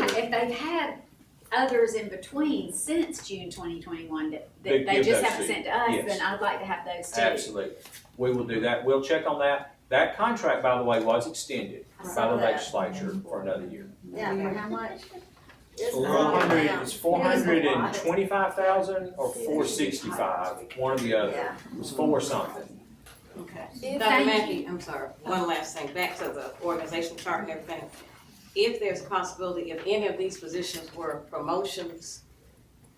they've had others in between since June twenty twenty-one that, They that they give just those haven't to- sent to us, yes. then I'd like to have those too. Absolutely. We will do that. We'll check on that. That contract, by the way, was extended I by saw the that. legislature for another year. Yeah, for how much? It's Four all hundred, down. it's four hundred and twenty-five thousand or Yeah. four sixty-five, one or the other. Yeah, It was four something. okay. Dr. Thank Mackey, I'm sorry, one last thing, back to the organizational chart and everything. If there's a possibility, if any of these positions were promotions,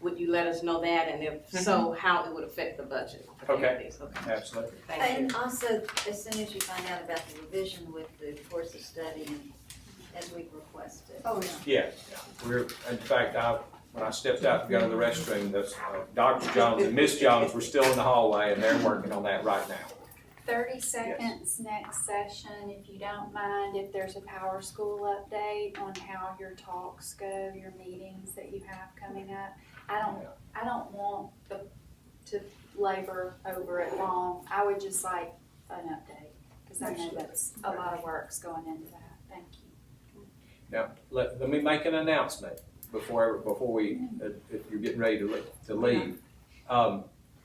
would you let us know that? And if so, how it would affect the budget? of any of Mm-hmm. Okay. these? Okay, Absolutely. thank you. And also, as soon as you find out about the revision with the course of study and as we requested. Oh, yeah. Yeah, we're, in fact, I, when I stepped out to go to the restroom, those, uh, Dr. Jones and Miss Jones were still in the hallway and they're working on that right now. Thirty seconds next session, if you don't mind, if there's a power school update on how your talks go, your meetings that you have coming up. I don't, I don't want the, to labor over it long, I would just like an update, cause I know that's, a lot of work's going into that, thank you. Now, let, let me make an announcement before, before we, if you're getting ready to, le- to leave. Um,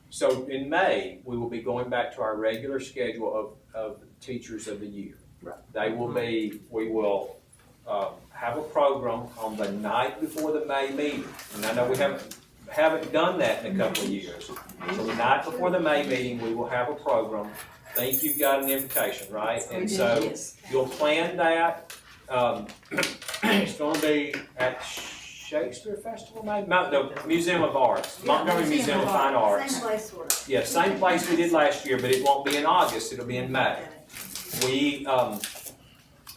so in May, we will be going back to our regular schedule of, of teachers of the year. Right. They will be, we will, uh, have a program on the night before the May meeting. And I know we haven't, haven't done that in a couple of years. So the night before the May meeting, we will have a program. Think you've got an invitation, right? And so, Yes. You'll plan that, um, it's gonna be at Shakespeare Festival, maybe, Mount, no, Museum of Arts, Montgomery Museum of Fine Same Arts. place we're. Yeah, same place we did last year, but it won't be in August, it'll be in May. We, um,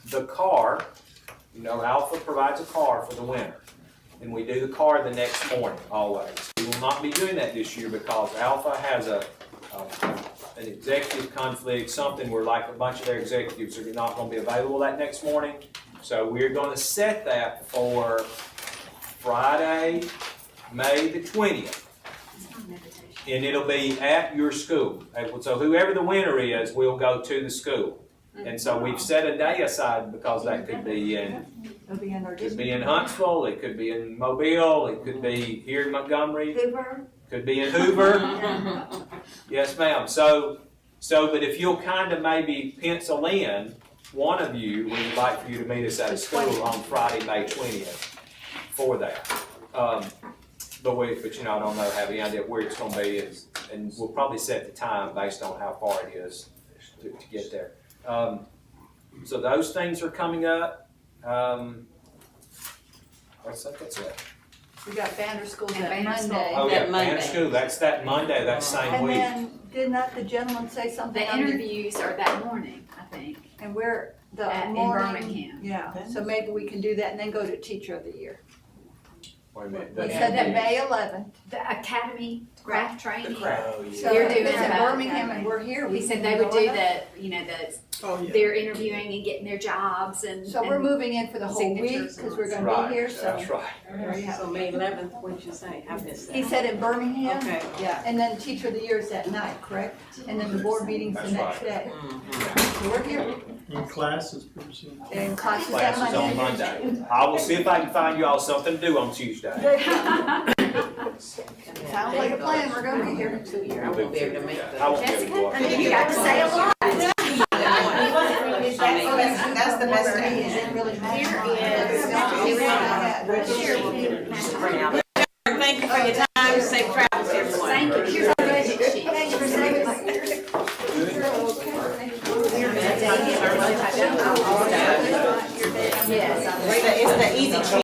the car, you know, Alpha provides a car for the winter. And we do the car the next morning always. We will not be doing that this year because Alpha has a, um, an executive conflict, something where like a bunch of their executives are not gonna be available that next morning. So we're gonna set that for Friday, May the twentieth and it'll be at your school. And So whoever the winner is, will go to the school. And so we've set a day aside because that could be in, It'll be in our could be in Huntsville, it could be in Mobile, it could be here in Montgomery, Hoover, could be in Hoover. yeah. Yes, ma'am. So, so, but if you'll kind of maybe pencil in, one of you, we would like for you to meet us at a school on Friday, May twentieth for that. Um, But we, but you know, I don't know, have any idea where it's gonna be is, and we'll probably set the time based on how far it is to, to get there. Um, So those things are coming up. Um, What's that, that's it? We got Banner School And that Banner School. Monday. Oh, yeah, That Monday. Uh-huh. Banner School, that's that Monday, that same And week. then, did not the gentleman say something The on the, interviews are that morning, I think, and where, the at, in morning? Birmingham. Yeah, so maybe we can do that and then go to Teacher of the Year. Wait a minute. We the- said that May eleventh, The academy craft training, Oh, yeah. so They're if doing it's in that. Birmingham and we're here, he we can said they would go do with that. the, you know, the, Oh, yeah. they're interviewing and getting their jobs and. So we're and- moving in for the whole week, Signatures and cause we're gonna Right, be here, so. That's right. there you have So it. May eleventh, what'd you say? I missed that. He said in Birmingham, Okay. yeah, and then Teacher of the Year is that night, correct? And then the board meeting's the That's next right. day, so we're here, And classes pretty soon. and classes that Classes on Monday. I will see if I can find you all something to do on Tuesday. Sounds like a plan, we're gonna be here in two years. I won't be able to make the. I won't be able to walk. I mean, you got to say a lot. That's that's the best thing. Thank you for your time, safe travels, everyone. Thank you, here's our budget sheet. Thank you for saving us. Yes. It's the easy